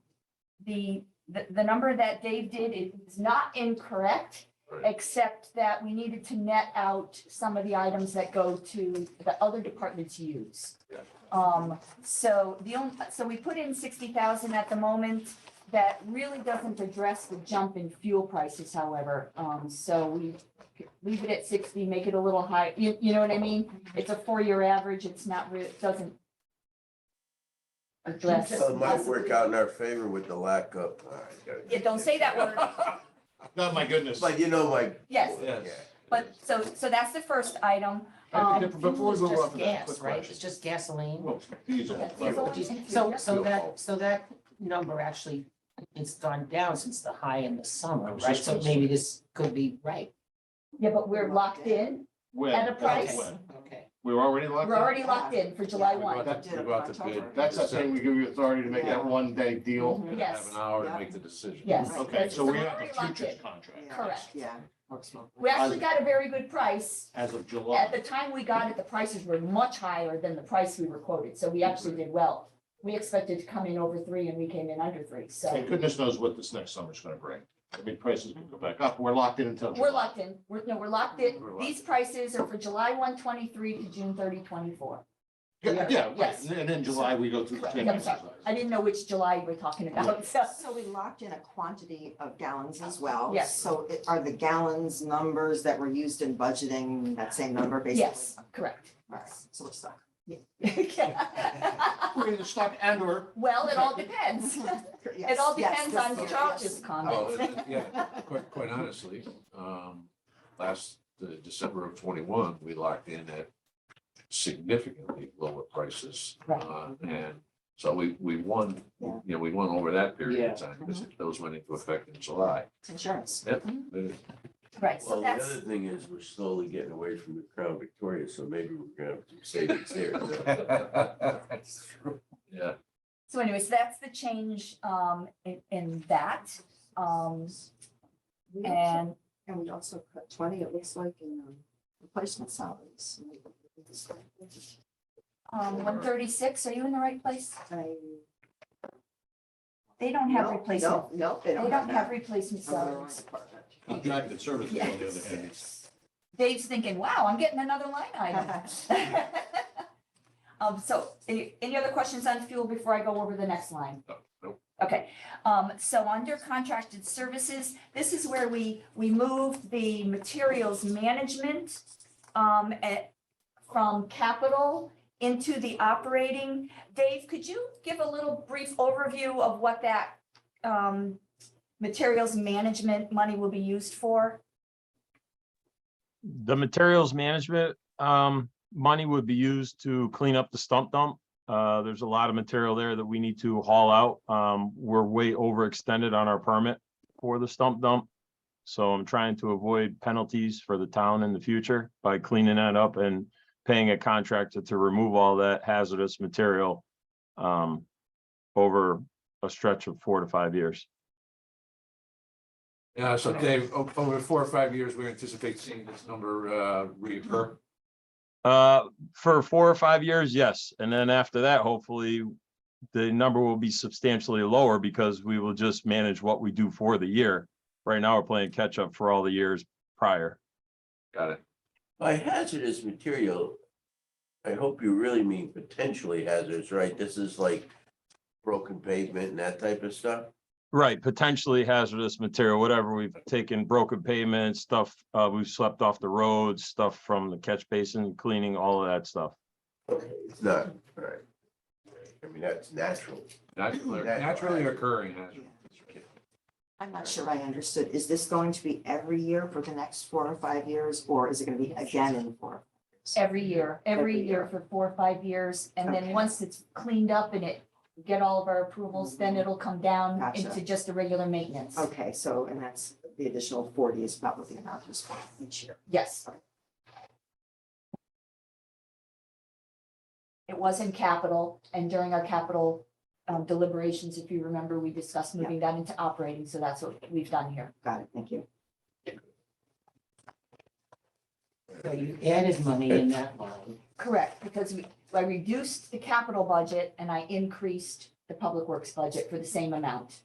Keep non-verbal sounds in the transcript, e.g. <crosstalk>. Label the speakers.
Speaker 1: the, the, the number that Dave did is not incorrect,
Speaker 2: Right.
Speaker 1: except that we needed to net out some of the items that go to the other departments use.
Speaker 2: Yeah.
Speaker 1: Um, so the only, so we put in sixty thousand at the moment. That really doesn't address the jump in fuel prices, however. Um, so we leave it at sixty, make it a little high, you, you know what I mean? It's a four-year average. It's not, re- it doesn't address.
Speaker 2: So it might work out in our favor with the lack of. all right, gotta-
Speaker 1: Yeah, don't say that word.
Speaker 3: Oh, my goodness.
Speaker 2: But you know my.
Speaker 1: Yes,
Speaker 2: Yeah.
Speaker 1: but so, so that's the first item.
Speaker 3: I
Speaker 1: Um,
Speaker 3: think if- Before we move on
Speaker 4: Just
Speaker 3: to that, quick
Speaker 4: gas, right? It's
Speaker 3: question.
Speaker 4: just gasoline.
Speaker 3: Well, diesel.
Speaker 1: That's
Speaker 3: level.
Speaker 1: all.
Speaker 4: So, so
Speaker 2: Fuel.
Speaker 4: that, so that number actually, it's gone down since the high in the
Speaker 3: I
Speaker 4: summer,
Speaker 3: was
Speaker 4: right?
Speaker 3: just
Speaker 4: So
Speaker 3: gonna
Speaker 4: maybe this could be right.
Speaker 1: Yeah, but we're locked in.
Speaker 3: When?
Speaker 1: At a
Speaker 3: That's
Speaker 1: price.
Speaker 3: when.
Speaker 4: Okay.
Speaker 3: We were already locked
Speaker 1: We're
Speaker 3: in.
Speaker 1: already locked in for July
Speaker 3: We go
Speaker 1: one.
Speaker 3: out to- we go out to bid. That's the thing, we give you authority to make that one day deal.
Speaker 1: <laughs>
Speaker 5: Mhm.
Speaker 1: Yes.
Speaker 6: Have an hour to make the decision.
Speaker 1: Yes.
Speaker 3: Okay, so we have
Speaker 1: Mm-hmm. Already
Speaker 3: the
Speaker 1: locked
Speaker 3: futures
Speaker 1: in.
Speaker 3: contract.
Speaker 5: Yeah.
Speaker 1: Correct.
Speaker 5: Yeah.
Speaker 1: We actually got a very good price.
Speaker 3: As of
Speaker 1: At
Speaker 3: July.
Speaker 1: the time we got it, the prices were much higher than the price we were quoted, so we actually did well. We expected to come in over three and we came in under three,
Speaker 3: And
Speaker 1: so
Speaker 3: goodness knows what this next summer's gonna bring. I mean, prices could go back up. We're locked in until.
Speaker 1: we're
Speaker 3: July.
Speaker 1: locked in. We're, no, we're locked in.
Speaker 3: We're locked
Speaker 1: These prices are for July one twenty-three to June thirty twenty-four.
Speaker 3: Yeah, yeah, right.
Speaker 1: Yes.
Speaker 3: And then in July, we go through the same
Speaker 1: Yeah, sorry.
Speaker 3: exercise.
Speaker 1: I didn't know which July you were talking about, so.
Speaker 5: So we locked in a quantity of gallons as well.
Speaker 1: Yes.
Speaker 5: So it- are the gallons numbers that were used in budgeting that same number basically?
Speaker 1: Yes, correct. <laughs>
Speaker 5: All right, so we're stuck.
Speaker 3: <laughs> We're in the stock and or
Speaker 6: <laughs>
Speaker 1: Well, it all depends. It
Speaker 5: Yes,
Speaker 1: all
Speaker 5: yes,
Speaker 1: depends
Speaker 5: yes,
Speaker 1: on
Speaker 5: yes,
Speaker 1: Charles's
Speaker 5: yes. Oh.
Speaker 6: Well,
Speaker 1: comment.
Speaker 6: it- it- yeah, quite, quite honestly, um, last, the December of twenty-one, we locked in at significantly lower prices.
Speaker 1: Right.
Speaker 6: Uh, And so we, we won, you know, we won over that period of time, because those went into effect in July.
Speaker 5: It's Insurance.
Speaker 6: But
Speaker 1: Right, so
Speaker 2: Well, the other
Speaker 1: that's,
Speaker 2: thing is we're slowly getting away from the Crown Victoria, so maybe we're gonna have some savings there.
Speaker 6: Yeah,
Speaker 1: so anyways, that's the change um in in that. Um
Speaker 5: We also-
Speaker 1: and
Speaker 5: And we also cut twenty, it looks like, in um, replacement salaries.
Speaker 1: um one thirty-six, are you in the right place?
Speaker 5: I-
Speaker 1: They don't have
Speaker 5: No,
Speaker 1: replacement,
Speaker 5: No, no, they
Speaker 1: they
Speaker 5: don't.
Speaker 1: don't have
Speaker 5: that.
Speaker 1: replacement
Speaker 5: Under the wrong
Speaker 1: salaries.
Speaker 5: department.
Speaker 3: contracted services on the other hand.
Speaker 1: Yes. Dave's thinking, wow, I'm getting another line item. Um, so any, any other questions on fuel before I go over the next line?
Speaker 6: no, no,
Speaker 1: Okay, um, so under contracted services, this is where we, we moved the materials management um, at, from capital into the operating. Dave, could you give a little brief overview of what that um, materials management money will be used for?
Speaker 7: The materials management um money would be used to clean up the stump dump. Uh, there's a lot of material there that we need to haul out. Um, we're way overextended on our permit for the stump dump. So I'm trying to avoid penalties for the town in the future by cleaning that up and paying a contractor to remove all that hazardous material um over a stretch of four to five years.
Speaker 6: <laughs> Yeah, so Dave, o- over four or five years, we anticipate seeing this number, uh, reoccur.
Speaker 7: Uh, for four or five years, yes. And then after that, hopefully, the number will be substantially lower because we will just manage what we do for the year. Right now, we're playing catch up for all the years prior.
Speaker 6: Got it.
Speaker 2: By hazardous material, I hope you really mean potentially hazardous, right? This is like broken pavement and that type of stuff.
Speaker 7: Right, potentially hazardous material, whatever. We've taken broken pavement, stuff, uh, we've swept off the roads, stuff from the catch basin cleaning, all of that stuff.
Speaker 2: Okay, It's not, right. I mean, that's natural.
Speaker 6: Naturally,
Speaker 2: Natural
Speaker 6: naturally
Speaker 2: hazard.
Speaker 6: occurring hazard.
Speaker 5: I'm not sure I understood. Is this going to be every year for the next four or five years, or is it gonna be again in four?
Speaker 1: Every year, every
Speaker 5: Every
Speaker 1: year
Speaker 5: year.
Speaker 1: for four or five years. And then
Speaker 5: Okay.
Speaker 1: once it's cleaned up and it, get all of our approvals, then it'll come down
Speaker 5: Mm-hmm. Gotcha.
Speaker 1: into just a regular maintenance.
Speaker 5: Okay, so, and that's, the additional forty is about what the amount is for each year.
Speaker 1: Yes. It was in capital, and during our capital um, deliberations, if you remember, we discussed moving that into operating, so that's what we've done here.
Speaker 5: Got it, thank you.
Speaker 4: So you added money in that line.
Speaker 1: Correct, because we, I reduced the capital budget and I increased the public works budget for the same amount.